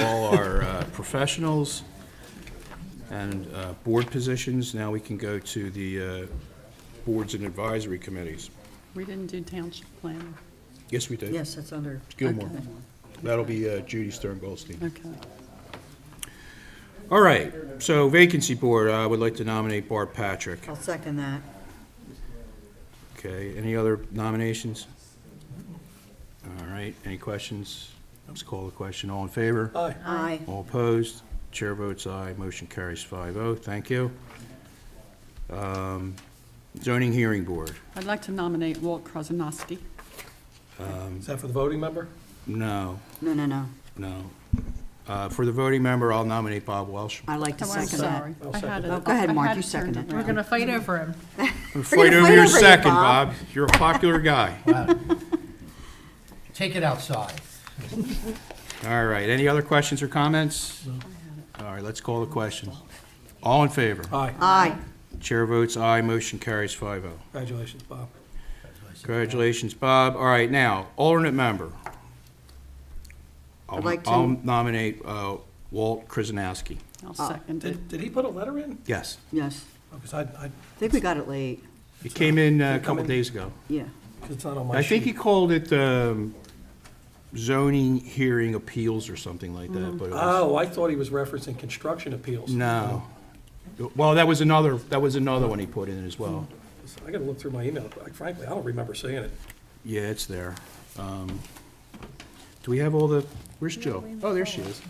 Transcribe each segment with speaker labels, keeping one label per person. Speaker 1: uh, professionals and uh, board positions. Now we can go to the uh, boards and advisory committees.
Speaker 2: We didn't do township planning.
Speaker 1: Yes, we did.
Speaker 3: Yes, that's under.
Speaker 1: Gilmore.
Speaker 3: okay.
Speaker 1: That'll be uh, Judy Stern Goldstein.
Speaker 2: Okay.
Speaker 1: All right, so vacancy board, I would like to nominate Bart Patrick.
Speaker 3: I'll second that.
Speaker 1: Okay, any other nominations? All right, any questions? Let's call the question. All in favor?
Speaker 4: Aye.
Speaker 3: Aye.
Speaker 1: All opposed? Chair votes aye. Motion carries 5-0. Thank you. Um, Zoning Hearing Board.
Speaker 2: I'd like to nominate Walt Krasinski.
Speaker 4: Is that for the voting member?
Speaker 1: No,
Speaker 3: No, no, no.
Speaker 1: no. Uh, For the voting member, I'll nominate Bob Welsh.
Speaker 3: I'd like to
Speaker 2: Oh, I'm
Speaker 3: second that.
Speaker 2: sorry.
Speaker 4: I'll
Speaker 2: I
Speaker 4: second
Speaker 2: had
Speaker 4: it.
Speaker 2: it.
Speaker 3: Oh, go ahead,
Speaker 2: I
Speaker 3: Mark,
Speaker 2: had
Speaker 3: you
Speaker 2: it turned
Speaker 3: second it.
Speaker 5: We're
Speaker 2: around.
Speaker 5: gonna fight over him.
Speaker 1: Fight
Speaker 3: gonna
Speaker 1: over
Speaker 3: fight
Speaker 1: your
Speaker 3: over you,
Speaker 1: second,
Speaker 3: Bob.
Speaker 1: Bob. You're a popular guy.
Speaker 6: Take it outside.
Speaker 1: All right, any other questions or comments? All right, let's call the question. All in favor?
Speaker 4: Aye.
Speaker 3: Aye.
Speaker 1: Chair votes aye, motion carries oh. 5-0.
Speaker 4: Congratulations, Bob.
Speaker 1: Congratulations, Bob. All right, now, alternate member. I'll-
Speaker 3: I'd like to-
Speaker 1: I'll nominate uh, Walt Krasinski.
Speaker 2: I'll second it.
Speaker 4: Did, did he put a letter in?
Speaker 1: Yes,
Speaker 3: Yes.
Speaker 4: Because Oh, I, I,
Speaker 3: I think we got it late.
Speaker 1: he came in uh, a couple
Speaker 4: Coming.
Speaker 1: days ago.
Speaker 3: Yeah.
Speaker 4: 'cause it's not on my
Speaker 1: I think he
Speaker 4: sheet.
Speaker 1: called it um, zoning hearing appeals or something like that, but it was,
Speaker 4: Oh, I thought he was referencing construction appeals.
Speaker 1: no. Well, that was another, that was another one he put in as well.
Speaker 4: I gotta look through my email. Like, Frankly, I don't remember seeing it.
Speaker 1: Yeah, it's there. Um, Do we have all the, where's Jill? Oh, there she is.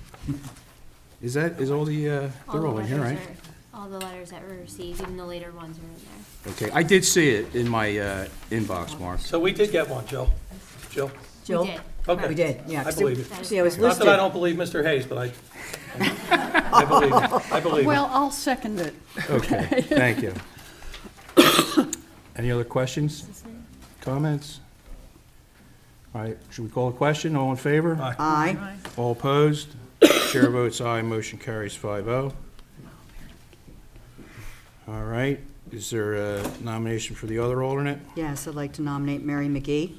Speaker 1: Is that, is all the, uh,
Speaker 7: All
Speaker 1: they're
Speaker 7: the
Speaker 1: all in here, right?
Speaker 7: letters are- All the letters that were received, even the later ones are in there.
Speaker 1: Okay, I did see it in my uh, inbox, Mark.
Speaker 4: So we did get one, Jill. Jill?
Speaker 3: Jill?
Speaker 7: did.
Speaker 4: Okay.
Speaker 3: We did, yeah.
Speaker 4: I believe it.
Speaker 3: See, I was
Speaker 4: Not that I
Speaker 3: listed.
Speaker 4: don't believe Mr. Hayes, but I, I believe, it. I believe. it.
Speaker 2: Well, I'll second it.
Speaker 1: Okay, thank you. Any other questions? Comments? All right, should we call a question? All in favor?
Speaker 4: Aye.
Speaker 3: Aye.
Speaker 1: All opposed? Chair votes aye, motion carries 5-0. All right, is there a nomination for the other alternate
Speaker 3: Yes, I'd like to nominate Mary McGee.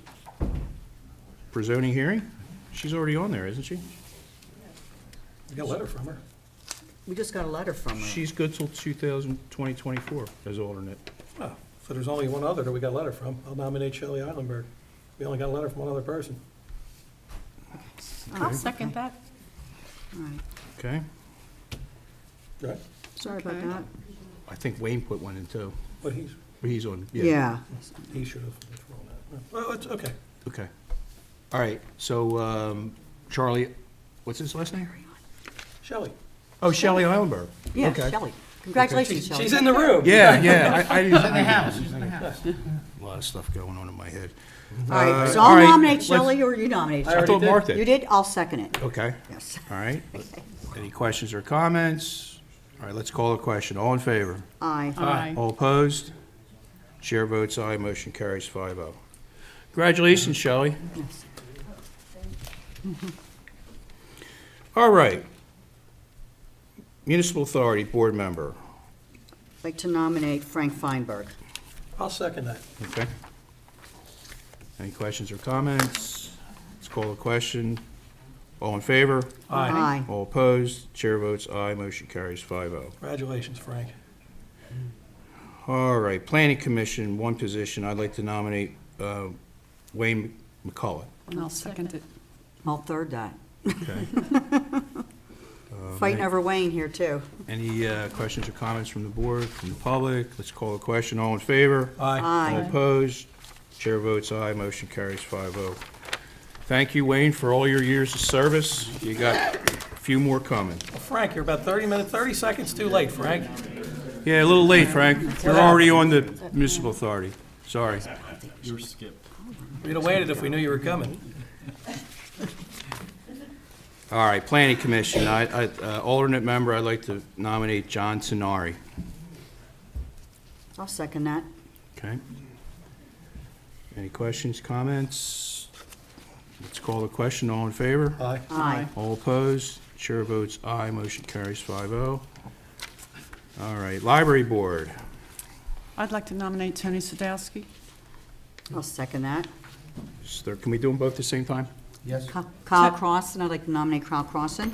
Speaker 1: for zoning hearing? She's already on there, isn't she?
Speaker 4: We got a letter from her.
Speaker 3: We just got a letter from her.
Speaker 1: She's good till 2000 2024 as alternate.
Speaker 4: Oh, So there's only one other that we got a letter from. I'll nominate Shelley Eilenberg. We only got a letter from one other person.
Speaker 3: I'll
Speaker 5: second that.
Speaker 3: All right.
Speaker 1: Okay?
Speaker 4: Right?
Speaker 3: Sorry about
Speaker 2: Okay.
Speaker 3: that.
Speaker 1: I think Wayne put one in too.
Speaker 4: But he's,
Speaker 1: He's on, yeah.
Speaker 3: Yeah.
Speaker 4: he should have. thrown that. Well, it's, okay.
Speaker 1: Okay. All right, so um, Charlie, what's his last name?
Speaker 4: Shelley.
Speaker 1: Oh, Shelley Eilenberg.
Speaker 3: Yeah,
Speaker 1: Okay.
Speaker 3: Shelley. Congratulations, Shelley.
Speaker 4: She's in the room.
Speaker 1: Yeah, yeah, I, I didn't.
Speaker 6: In the house, he's in the house.
Speaker 1: A lot of stuff going on in my head.
Speaker 3: All right, so
Speaker 1: Uh, all
Speaker 3: I'll
Speaker 1: right,
Speaker 3: nominate
Speaker 1: let's-
Speaker 3: Shelley or you nominate
Speaker 4: I
Speaker 1: I
Speaker 3: Shelley.
Speaker 4: already
Speaker 1: thought
Speaker 4: did.
Speaker 1: Mark
Speaker 3: You
Speaker 1: did.
Speaker 3: did, I'll second it.
Speaker 1: Okay,
Speaker 3: Yes.
Speaker 1: all right. Any questions or comments? All right, let's call a question. All in favor?
Speaker 3: Aye.
Speaker 2: Aye.
Speaker 1: All opposed? Chair votes aye, motion carries 5-0. Congratulations, Shelley.
Speaker 3: Yes.
Speaker 1: All right. Municipal Authority Board Member,
Speaker 3: I'd like to nominate Frank Feinberg.
Speaker 4: I'll second that.
Speaker 1: okay? Any questions or comments? Let's call the question. All in favor?
Speaker 3: Aye.
Speaker 1: All opposed? Chair votes aye, motion carries oh. 5-0.
Speaker 4: Congratulations, Frank.
Speaker 1: All right, Planning Commission, one position. I'd like to nominate uh, Wayne McCullough.
Speaker 2: And I'll second it.
Speaker 3: I'll third that.
Speaker 1: Okay.
Speaker 3: Fighting over Wayne here, too.
Speaker 1: Any uh, questions or comments from the board, from the public? Let's call the question. All in favor?
Speaker 4: Aye.
Speaker 1: All
Speaker 3: Aye.
Speaker 1: opposed? Chair votes aye, motion carries 5-0. Thank you, Wayne, for all your years of service. You got a few more coming.
Speaker 4: Well, Frank, you're about 30 minutes, 30 seconds too late, Frank.
Speaker 1: Yeah, a little late, Frank. You're already on the municipal authority. Sorry.
Speaker 4: We'd have waited if we knew you were coming.
Speaker 1: All right, Planning Commission, I, I- uh, alternate member, I'd like to nominate John Tenari.
Speaker 3: I'll second that.
Speaker 1: Okay. Any questions, comments? Let's call the question. All in favor?
Speaker 4: Aye.
Speaker 3: Aye.
Speaker 1: All opposed? Chair votes aye, motion carries 5-0. All right, Library Board.
Speaker 2: I'd like to nominate Tony Sadowski.
Speaker 3: I'll second that.
Speaker 1: Is there- Can we do them both at the same time?
Speaker 6: Yes.
Speaker 3: Kyle Crossan, I'd like to nominate Kyle Crossan.